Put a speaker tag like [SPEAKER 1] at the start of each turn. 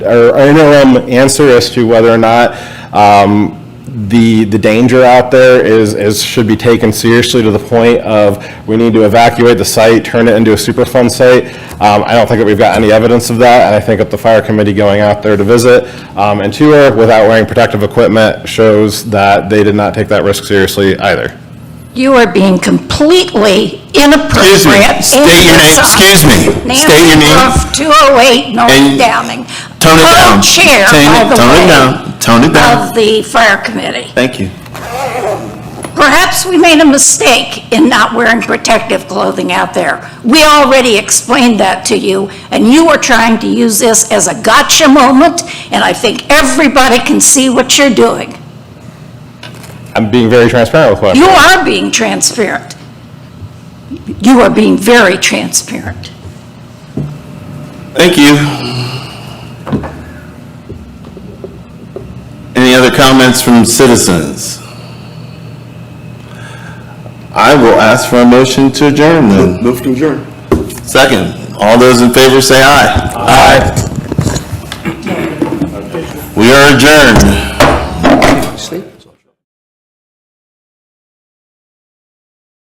[SPEAKER 1] our our interim answer as to whether or not um, the, the danger out there is, is, should be taken seriously to the point of, we need to evacuate the site, turn it into a Superfund site. Um, I don't think that we've got any evidence of that, and I think that the fire committee going out there to visit um, and tour without wearing protective equipment shows that they did not take that risk seriously either.
[SPEAKER 2] You are being completely inappropriate.
[SPEAKER 3] Excuse me. State your name. Excuse me. State your name.
[SPEAKER 2] name. 208 North
[SPEAKER 3] And-
[SPEAKER 2] Downing.
[SPEAKER 3] Tone it down.
[SPEAKER 2] Co-chair,
[SPEAKER 3] Tone
[SPEAKER 2] by
[SPEAKER 3] it-
[SPEAKER 2] the
[SPEAKER 3] tone it
[SPEAKER 2] way,
[SPEAKER 3] down. Tone it down.
[SPEAKER 2] Of the fire committee.
[SPEAKER 3] Thank you.
[SPEAKER 2] Perhaps we made a mistake in not wearing protective clothing out there. We already explained that to you, and you are trying to use this as a gotcha moment, and I think everybody can see what you're doing.
[SPEAKER 1] I'm being very transparent with what I'm
[SPEAKER 2] You are being transparent. You are being very transparent.
[SPEAKER 3] Thank you. Any other comments from citizens? I will ask for a motion to adjourn then.
[SPEAKER 4] Move to adjourn.
[SPEAKER 3] Second, all those in favor say aye. Aye. We are adjourned.
[SPEAKER 4] Sleep.